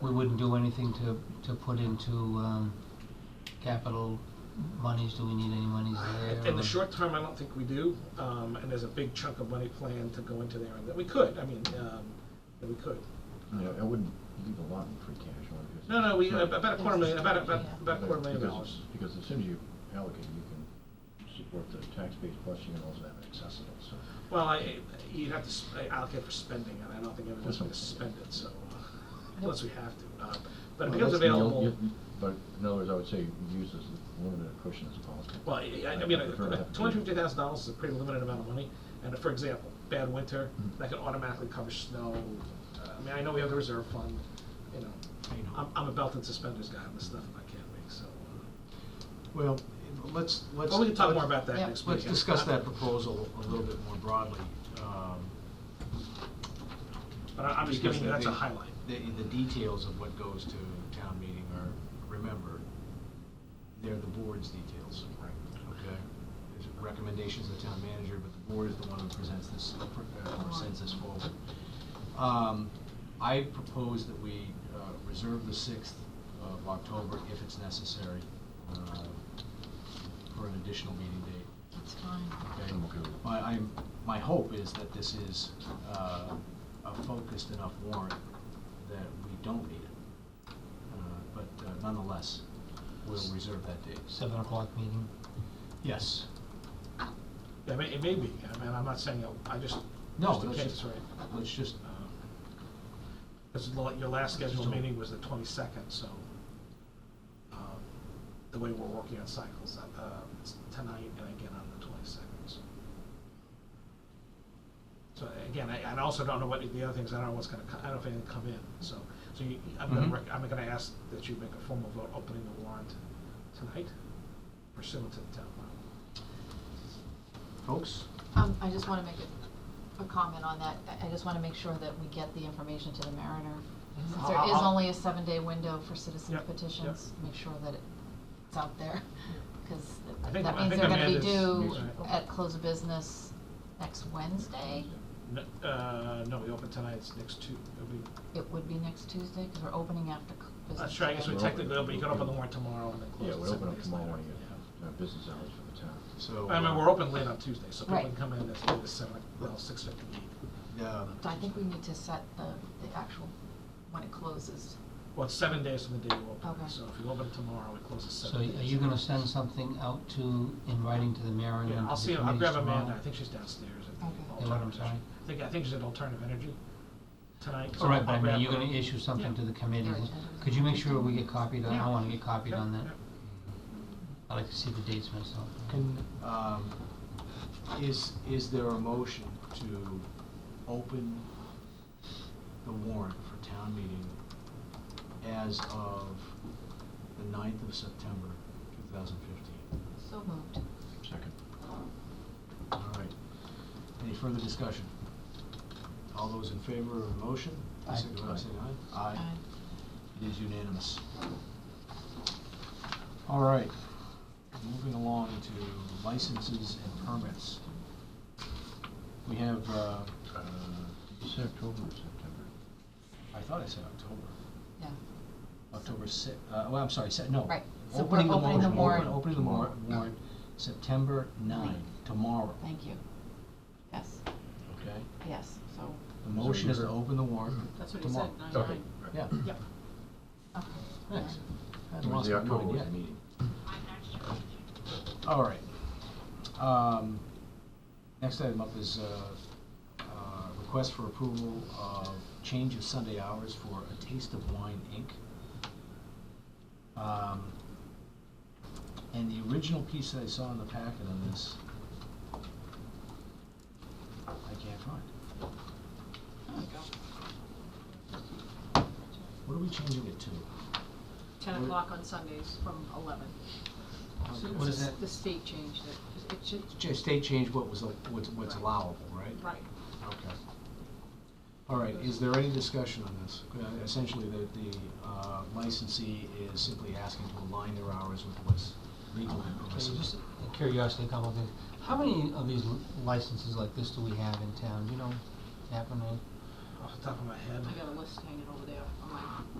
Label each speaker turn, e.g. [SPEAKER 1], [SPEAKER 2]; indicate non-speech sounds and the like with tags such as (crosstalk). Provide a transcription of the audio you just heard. [SPEAKER 1] we wouldn't do anything to, to put into, um, capital monies, do we need any monies there?
[SPEAKER 2] In
[SPEAKER 1] or-
[SPEAKER 2] the short term, I don't think we do, um, and there's a big chunk of money planned to go into there, and that we could, I mean, um, that we could.
[SPEAKER 3] You know, I wouldn't leave a lot in free cash. I would just-
[SPEAKER 2] No, no, we, uh,
[SPEAKER 3] Right.
[SPEAKER 2] about a quarter million, about, a- about, about a quarter million
[SPEAKER 3] Because
[SPEAKER 2] dollars.
[SPEAKER 3] it's- Because as soon as you allocate, you can support the tax base, plus you can also have it accessible, so.
[SPEAKER 2] Well, I, you'd have to s- allocate for spending, and I don't think everyone's gonna spend it, so, uh, unless we have to. uh, But it
[SPEAKER 3] Well,
[SPEAKER 2] becomes
[SPEAKER 3] that's- you'll-
[SPEAKER 2] available,
[SPEAKER 3] you'll- But in other words, I would say use as limited a cushion as possible.
[SPEAKER 2] well, I, I
[SPEAKER 3] I
[SPEAKER 2] mean,
[SPEAKER 3] prefer to have-
[SPEAKER 2] two hundred fifty thousand dollars is a pretty limited amount of money, and for example, bad winter,
[SPEAKER 4] Hmm.
[SPEAKER 3] Mhm.
[SPEAKER 2] that could automatically cover snow. Uh, I mean, I know we have the reserve fund, you know, I'm, I'm a belt and suspenders guy on this stuff, and I can't make, so. uh,
[SPEAKER 4] Well, let's, let's.
[SPEAKER 2] Well, we can talk more
[SPEAKER 4] let's-
[SPEAKER 2] about that
[SPEAKER 5] Yeah.
[SPEAKER 2] next week.
[SPEAKER 4] Let's discuss that proposal a little bit more broadly. Um,
[SPEAKER 2] But I- I'm just
[SPEAKER 4] because
[SPEAKER 2] giving you,
[SPEAKER 4] the-
[SPEAKER 2] that's a
[SPEAKER 4] the-
[SPEAKER 2] highlight.
[SPEAKER 4] The, the details of what goes to town meeting are, remember, they're the board's details.
[SPEAKER 2] Right.
[SPEAKER 4] Okay? There's recommendations of the town manager, but the board is the one who presents this, uh, or sends this forward. Um, I propose that we uh, reserve the sixth of October if it's necessary uh, for an additional meeting date.
[SPEAKER 5] It's fine.
[SPEAKER 4] Okay.
[SPEAKER 3] I'm okay with it.
[SPEAKER 4] My, I'm, my hope is that this is, uh, a focused enough warrant that we don't need it. Uh, But uh, nonetheless, we'll reserve that date.
[SPEAKER 1] Seven o'clock meeting,
[SPEAKER 4] Yes.
[SPEAKER 2] Yeah, I mean, it may be, I mean, I'm not saying, it- I just,
[SPEAKER 4] No,
[SPEAKER 2] just in
[SPEAKER 4] let's
[SPEAKER 2] case,
[SPEAKER 4] just,
[SPEAKER 2] right?
[SPEAKER 4] let's just, uh,
[SPEAKER 2] Because your last scheduled
[SPEAKER 4] Still-
[SPEAKER 2] meeting was the twenty-second, so, um, the way we're working on cycles, uh, it's tonight and again on the twenty-second, so. So again, I, I also don't know what, the other things, I don't know what's gonna, co- I don't know if anything come in, so, so you, I'm gonna,
[SPEAKER 1] Mhm.
[SPEAKER 2] rec- I'm gonna ask that you make a formal vote opening the warrant tonight pursuant to the town law.
[SPEAKER 4] folks,
[SPEAKER 5] Um, I just wanna make a, a comment on that, I, I just wanna make sure that we get the information to the Mariner. Since there is
[SPEAKER 2] Mm-hmm. I'll-
[SPEAKER 5] only a seven-day window for citizen
[SPEAKER 2] Yep, yep.
[SPEAKER 5] petitions, make sure that it- it's out there, (laughs) cause
[SPEAKER 2] I
[SPEAKER 5] that-
[SPEAKER 2] think-
[SPEAKER 5] that
[SPEAKER 2] I
[SPEAKER 5] means
[SPEAKER 2] think
[SPEAKER 5] they're gonna be
[SPEAKER 2] Amanda's-
[SPEAKER 5] due
[SPEAKER 2] Right.
[SPEAKER 5] at close of business next Wednesday.
[SPEAKER 2] No, uh, no, we open tonight, it's next two, it'll be
[SPEAKER 5] It would be next Tuesday, cause we're opening after c- business.
[SPEAKER 2] That's true, I guess we
[SPEAKER 5] today.
[SPEAKER 3] We're open.
[SPEAKER 2] technically, but you can open the warrant tomorrow and then close
[SPEAKER 3] Yeah,
[SPEAKER 2] it
[SPEAKER 3] we
[SPEAKER 2] seven
[SPEAKER 3] open up
[SPEAKER 2] days later.
[SPEAKER 3] tomorrow morning at uh, business hours for the town.
[SPEAKER 4] so.
[SPEAKER 2] I mean,
[SPEAKER 4] uh,
[SPEAKER 2] we're open late on Tuesday, so people
[SPEAKER 5] Right.
[SPEAKER 2] can come in as late as seven, well, six fifty.
[SPEAKER 4] um,
[SPEAKER 5] So I think we need to set the, the actual, when it closes.
[SPEAKER 2] Well, it's seven days from the day you open,
[SPEAKER 5] Okay.
[SPEAKER 2] so if you open it tomorrow, it closes
[SPEAKER 1] so
[SPEAKER 2] seven
[SPEAKER 1] are
[SPEAKER 2] days.
[SPEAKER 1] you gonna send something out to, in writing to the mayor and to the
[SPEAKER 2] Yeah, I'll
[SPEAKER 1] committees
[SPEAKER 2] see, I'll grab
[SPEAKER 1] tomorrow?
[SPEAKER 2] Amanda, I think she's downstairs at the
[SPEAKER 5] Okay.
[SPEAKER 2] alternative.
[SPEAKER 1] Yeah, what I'm
[SPEAKER 2] energy. I think, I think she's at alternative energy tonight. so
[SPEAKER 1] All right, but
[SPEAKER 2] I'll
[SPEAKER 1] I
[SPEAKER 2] grab
[SPEAKER 1] mean, you're
[SPEAKER 2] her.
[SPEAKER 1] gonna issue something
[SPEAKER 2] Yeah.
[SPEAKER 1] to the committee,
[SPEAKER 5] Yeah.
[SPEAKER 1] could you make sure we get copied on,
[SPEAKER 2] Yeah.
[SPEAKER 1] I wanna get copied
[SPEAKER 2] Yeah,
[SPEAKER 1] on that?
[SPEAKER 2] yeah.
[SPEAKER 1] I'd like to see the dates myself.
[SPEAKER 4] Can, um, is, is there a motion to open the warrant for town meeting as of the ninth of September, two thousand fifteen?
[SPEAKER 5] So moved.
[SPEAKER 3] Second.
[SPEAKER 4] All right. Any further discussion? All those in favor of the motion?
[SPEAKER 1] Aye.
[SPEAKER 4] signify by saying aye. Aye.
[SPEAKER 5] Aye.
[SPEAKER 4] It is unanimous. All right, moving along to licenses and permits. We have, uh,
[SPEAKER 3] Uh, Did you say October or September?
[SPEAKER 4] I thought I said October,
[SPEAKER 5] Yeah,
[SPEAKER 4] October si, uh, well, I'm sorry, se- no.
[SPEAKER 5] Right, so
[SPEAKER 4] Opening
[SPEAKER 5] we're
[SPEAKER 4] the
[SPEAKER 5] opening the
[SPEAKER 4] motion,
[SPEAKER 5] warrant.
[SPEAKER 4] open- Opening the mor- warrant, September nine, tomorrow,
[SPEAKER 5] thank you. Yes,
[SPEAKER 4] okay?
[SPEAKER 5] yes, so,
[SPEAKER 4] The motion is to open the warrant
[SPEAKER 6] That's what he
[SPEAKER 4] tomorrow.
[SPEAKER 6] said, nine
[SPEAKER 3] Okay.
[SPEAKER 6] nine.
[SPEAKER 3] right.
[SPEAKER 4] Yeah,
[SPEAKER 6] Yep.
[SPEAKER 5] okay. (laughs)
[SPEAKER 4] thanks.
[SPEAKER 3] It
[SPEAKER 4] Hadn't
[SPEAKER 3] was
[SPEAKER 4] lost
[SPEAKER 3] the
[SPEAKER 4] my mind
[SPEAKER 3] October was
[SPEAKER 4] yet.
[SPEAKER 3] the meeting.
[SPEAKER 4] All right. Um, Next item up is uh, uh, request for approval of change of Sunday hours for A Taste of Wine, Inc. Um, And the original piece that I saw in the packet on this, I can't find.
[SPEAKER 6] There we go.
[SPEAKER 4] What are we changing it to?
[SPEAKER 6] Ten o'clock on Sundays from eleven. So
[SPEAKER 1] What
[SPEAKER 6] it's
[SPEAKER 1] is
[SPEAKER 6] the-
[SPEAKER 1] that?
[SPEAKER 6] The state changed it, it should,
[SPEAKER 4] Ch- State changed what was, al- what's what's
[SPEAKER 6] Right.
[SPEAKER 4] allowable, right?
[SPEAKER 6] right.
[SPEAKER 4] Okay. All right, is there any discussion on this? Uh, Essentially, the, the uh, licensee is simply asking to align their hours with what's legal and
[SPEAKER 1] Okay,
[SPEAKER 4] permissible.
[SPEAKER 1] just a curiosity, a couple of things. How many of these licenses like this do we have in town? Do you know, happening?
[SPEAKER 2] Off the top of my head.
[SPEAKER 6] I got a list hanging over there on my